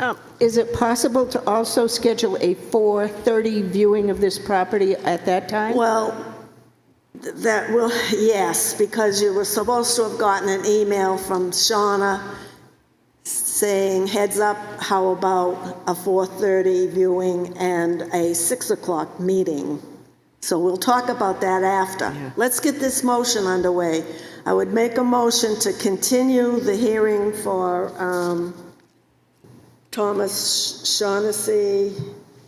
Um, Is it possible to also schedule a 4:30 viewing of this property at that time? Well, th- that will, yes, because you were supposed to have gotten an email from Shauna saying, heads up, how about a 4:30 viewing and a 6 o'clock meeting? So we'll talk about that after. Let's get this motion underway. I would make a motion to continue the hearing for um, Thomas Shaughnessy,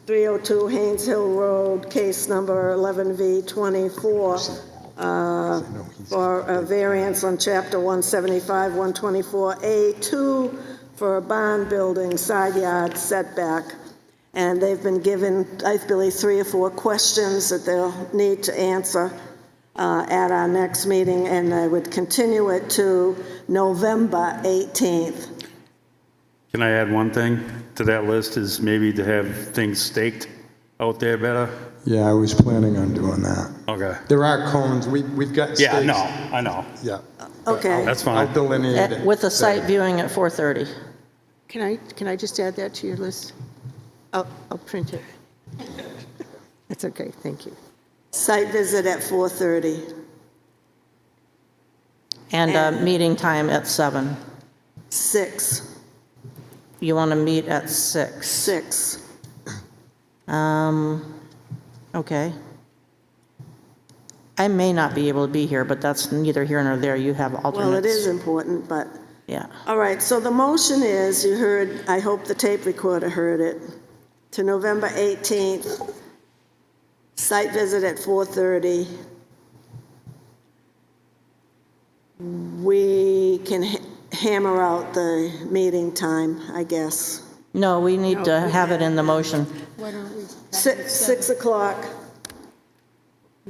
302 Haynes Hill Road, case number 11V24, uh, for a variance on Chapter 175, 124A2 for a barn building side yard setback. And they've been given, I believe, three or four questions that they'll need to answer uh, at our next meeting, and I would continue it to November 18th. Can I add one thing to that list is maybe to have things staked out there better? Yeah, I was planning on doing that. Okay. There are cones, we, we've got stakes. Yeah, no, I know. Yeah. Okay. That's I'll fine. delineate it. Uh, With a site viewing at 4:30. Can I, can I just add that to your list? I'll, I'll print it. That's okay, thank you. Site visit at 4:30. And a meeting time at 7. Six, You want to meet at 6. six. Um, okay. I may not be able to be here, but that's neither here nor there. You have alternates. Well, it is important, but, Yeah. all right, so the motion is, you heard, I hope the tape recorder heard it, to November 18th, site visit at 4:30. We can ha- hammer out the meeting time, I guess. No, we need to have it in the motion. Si- 6 o'clock.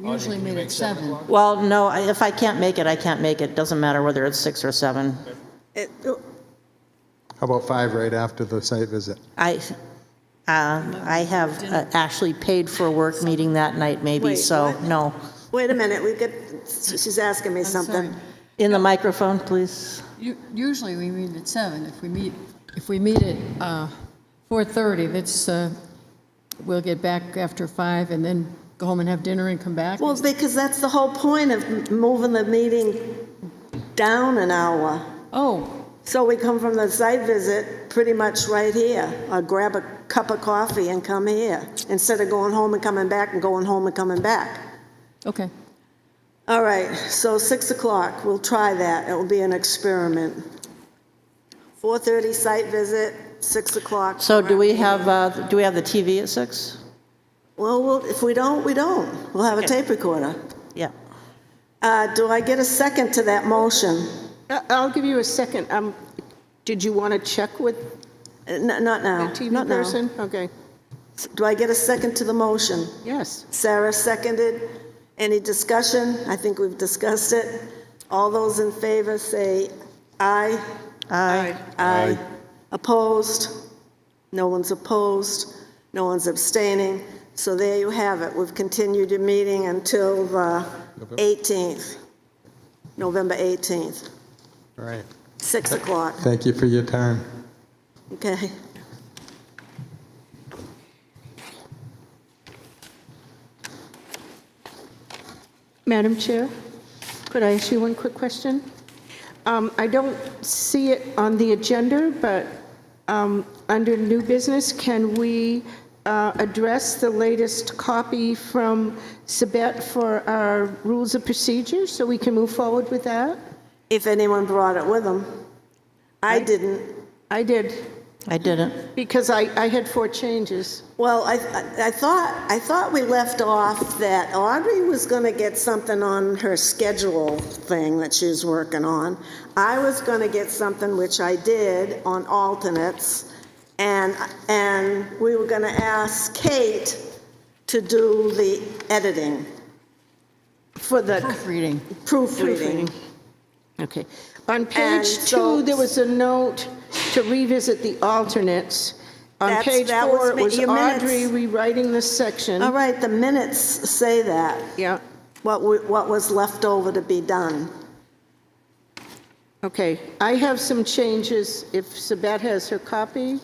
Usually meet at seven. Well, no, I- if I can't make it, I can't make it. Doesn't matter whether it's 6 or 7. It- oh, How about five right after the site visit? I, uh, I have uh, actually paid for a work meeting that night maybe, Wait, so, what? no. Wait a minute, we get, she's asking me something. In the microphone, please. U- Usually we meet at seven. If we meet, if we meet at uh, 4:30, that's, uh, we'll get back after five and then go home and have dinner and come back. Well, because that's the whole point of m- moving the meeting down an hour. Oh, So we come from the site visit pretty much right here, or grab a cup of coffee and come here, instead of going home and coming back and going home and coming back. okay. All right, so 6 o'clock, we'll try that, it will be an experiment. 4:30 site visit, 6 o'clock. So do we have, uh, do we have the TV at 6? Well, we'll- if we don't, we don't, we'll have a tape recorder. Yeah. Uh, Do I get a second to that motion? I- Uh, I'll give you a second. Um, Did you want to check with Uh, n- Not the now, TV not now. person? Okay, Do I get a second to the motion? yes. Sarah seconded. Any discussion? I think we've discussed it. All those in favor say aye. Aye. Aye. Opposed? No one's opposed. No one's abstaining. So there you have it. We've continued your meeting until the 18th, November 18th, All right. 6 o'clock, Thank you for your time. okay? Madam Chair, could I ask you one quick question? Um, I don't see it on the agenda, but um, under new business, can we uh, address the latest copy from Sabette for our rules of procedure, so we can move forward with that? If anyone brought it with them. I didn't. I did, I didn't. because I I had four changes. Well, I, I- I thought, I thought we left off that Audrey was going to get something on her schedule thing that she was working on. I was going to get something, which I did, on alternates, and, and we were going to ask Kate to do the editing, For the Proofreading. proofreading. proofreading. Okay. On And page so- two, there was a note to revisit the alternates. On That's- page that was four, it mi- was your minutes. Audrey rewriting this All section. right, the minutes say that, Yeah, what, we- what was left over to be done. okay. I have some changes, if Sabat has her copy.